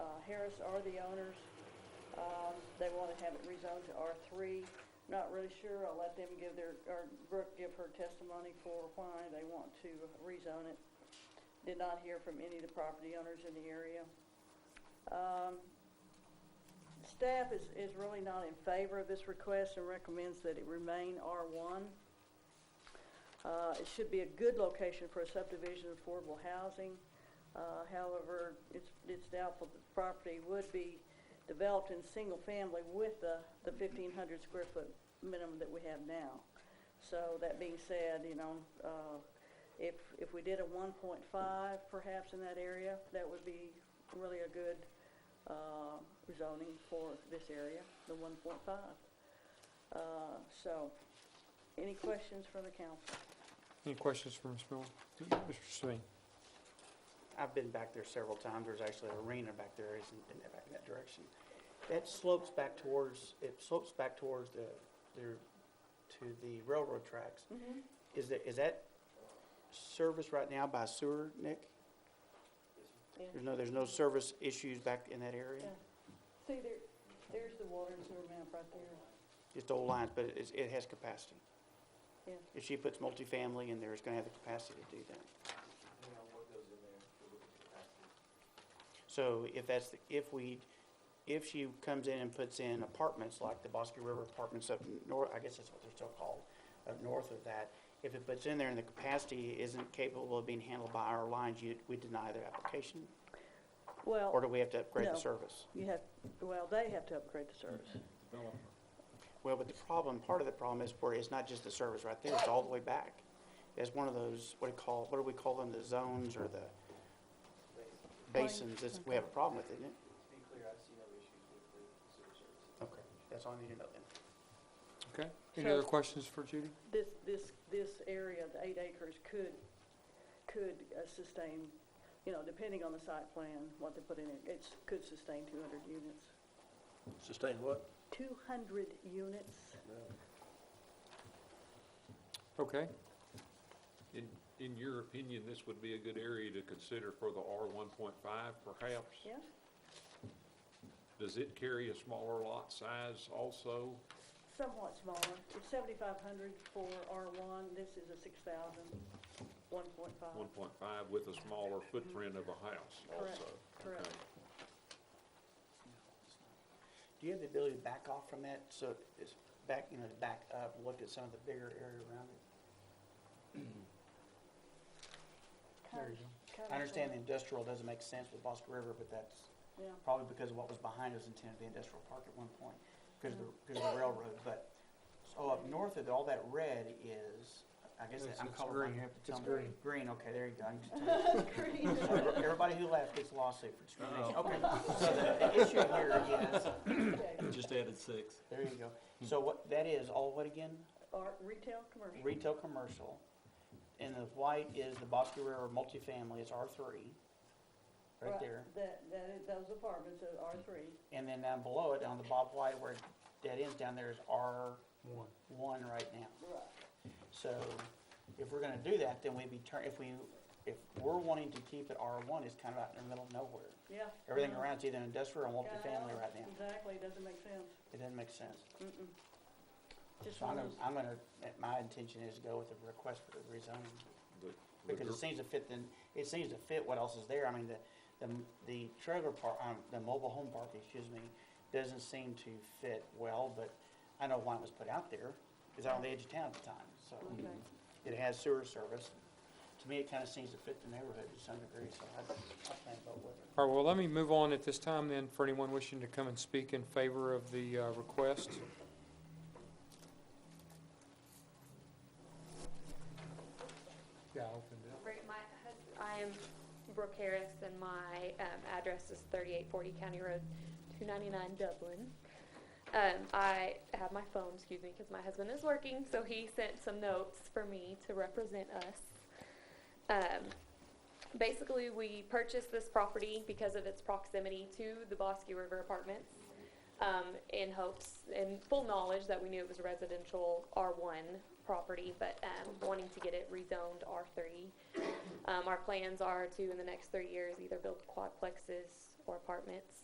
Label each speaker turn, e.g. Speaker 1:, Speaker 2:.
Speaker 1: uh, Harris are the owners. Um, They want to have it rezoned to R3. Not really sure, I'll let them give their, or Brooke give her testimony for why they want to rezone it. Did not hear from any of the property owners in the area. Um, Staff is, is really not in favor of this request and recommends that it remain R1. Uh, It should be a good location for a subdivision of affordable housing. Uh, However, it's it's doubtful that the property would be developed in single-family with the the 1,500 square foot minimum that we have now. So that being said, you know, uh, if if we did a 1.5 perhaps in that area, that would be really a good uh, zoning for this area, the 1.5. Uh, So, any questions from the council?
Speaker 2: Any questions for Ms. Miller? Mr. Sweeney?
Speaker 3: I've been back there several times. There's actually an arena back there, isn't, in that, back in that direction. That slopes back towards, it slopes back towards the, the, to the railroad tracks.
Speaker 1: Mm-hmm.
Speaker 3: Is that, is that serviced right now by sewer, Nick?
Speaker 1: Yeah.
Speaker 3: There's no, there's no service issues back in that
Speaker 1: Yeah.
Speaker 3: area?
Speaker 1: See, there, there's the water and sewer map right there.
Speaker 3: Just old lines, but it, it has capacity.
Speaker 1: Yeah.
Speaker 3: If she puts multifamily in there, it's gonna have the capacity to do that.
Speaker 4: depending on what goes in there, if we look at capacity.
Speaker 3: So if that's, the- if we, if she comes in and puts in apartments like the Bosque River apartments up north, I guess that's what they're still called, up north of that, if it puts in there and the capacity isn't capable of being handled by our lines, you, we deny their application? Or do
Speaker 1: Well,
Speaker 3: we have to upgrade the
Speaker 1: No.
Speaker 3: service?
Speaker 1: you have, well, they have to upgrade the service.
Speaker 3: Well, but the problem, part of the problem is where it's not just the service right there, it's all the way back. It's one of those, what do you call, what do we call them, the zones or the basins, It's- we have a problem with, isn't it?
Speaker 4: To be clear, I see no issues with the sewer service.
Speaker 3: Okay, that's all I need to know then.
Speaker 2: Okay. Any
Speaker 1: So-
Speaker 2: other questions for Judy?
Speaker 1: This, this, this area, the eight acres, could, could uh, sustain, you know, depending on the site plan, what they put in it, it's, could sustain 200 units.
Speaker 5: Sustain what?
Speaker 1: 200 units?
Speaker 2: Okay.
Speaker 6: In, in your opinion, this would be a good area to consider for the R one point five perhaps?
Speaker 1: Yeah?
Speaker 6: Does it carry a smaller lot size also?
Speaker 1: Somewhat smaller. It's 7,500 for R1. This is a 6,000, 1.5.
Speaker 6: One point five with a smaller footprint of a house
Speaker 1: Correct,
Speaker 6: also?
Speaker 1: correct.
Speaker 6: Okay.
Speaker 3: Do you have the ability to back off from that, so it's back, you know, to back up, look at some of the bigger area around it? There you go. I understand the industrial doesn't make sense with Bosque River, but that's
Speaker 1: Yeah.
Speaker 3: probably because of what was behind us intended to be industrial park at one point, because of the, because of the railroad, but, so up north of, all that red is, I guess
Speaker 2: It's-
Speaker 3: I'm
Speaker 2: it's
Speaker 3: colorblind,
Speaker 2: green.
Speaker 3: you have to tell
Speaker 2: It's
Speaker 3: me.
Speaker 2: green.
Speaker 3: Green, okay, there you go. I can tell. Everybody who left gets a lawsuit for discrimination.
Speaker 2: Oh.
Speaker 3: Okay, so the the issue here is,
Speaker 5: Just added six.
Speaker 3: There you go. So what, that is all what again?
Speaker 1: Or retail, commercial.
Speaker 3: Retail, commercial. And the white is the Bosque River multifamily, it's R3, right there.
Speaker 1: That, that, is- those apartments are R three.
Speaker 3: And then down below it, on the Bob White where it dead ends down there is R1
Speaker 2: One.
Speaker 3: right now.
Speaker 1: Right.
Speaker 3: So if we're gonna do that, then we'd be turn, if we, if we're wanting to keep it R1, it's kind of out in the middle of nowhere.
Speaker 1: Yeah.
Speaker 3: Everything
Speaker 1: Mm-hmm.
Speaker 3: around's either industrial or
Speaker 1: Yeah,
Speaker 3: multifamily right now.
Speaker 1: Exactly, doesn't make sense.
Speaker 3: It doesn't make sense.
Speaker 1: Just
Speaker 3: So I'm
Speaker 1: one of
Speaker 3: gonna,
Speaker 1: those,
Speaker 3: I'm gonna, my intention is to go with the request for rezoning.
Speaker 6: The- the
Speaker 3: Because it
Speaker 6: gr-
Speaker 3: seems to fit the, it seems to fit what else is there. I mean, the, the, the trailer park, um, the mobile home park, excuse me, doesn't seem to fit well, but I know why it was put out there. It's out on the edge of town at the time,
Speaker 1: Okay.
Speaker 3: so. It has sewer service. To me, it kind of seems to fit the neighborhood to some degree, so I, I plan to vote with it.
Speaker 2: All right, well, let me move on at this time then for anyone wishing to come and speak in favor of the uh, request. Yeah, I opened it.
Speaker 7: Right, my hus- I am Brooke Harris, and my um, address is 3840 County Road 299 Dublin. Um, I have my phone, excuse me, because my husband is working, so he sent some notes for me to represent us. Um, Basically, we purchased this property because of its proximity to the Bosque River Apartments um, in hopes, in full knowledge that we knew it was a residential R1 property, but um, wanting to get it rezoned R3. Um, Our plans are to, in the next three years, either build quadplexes or apartments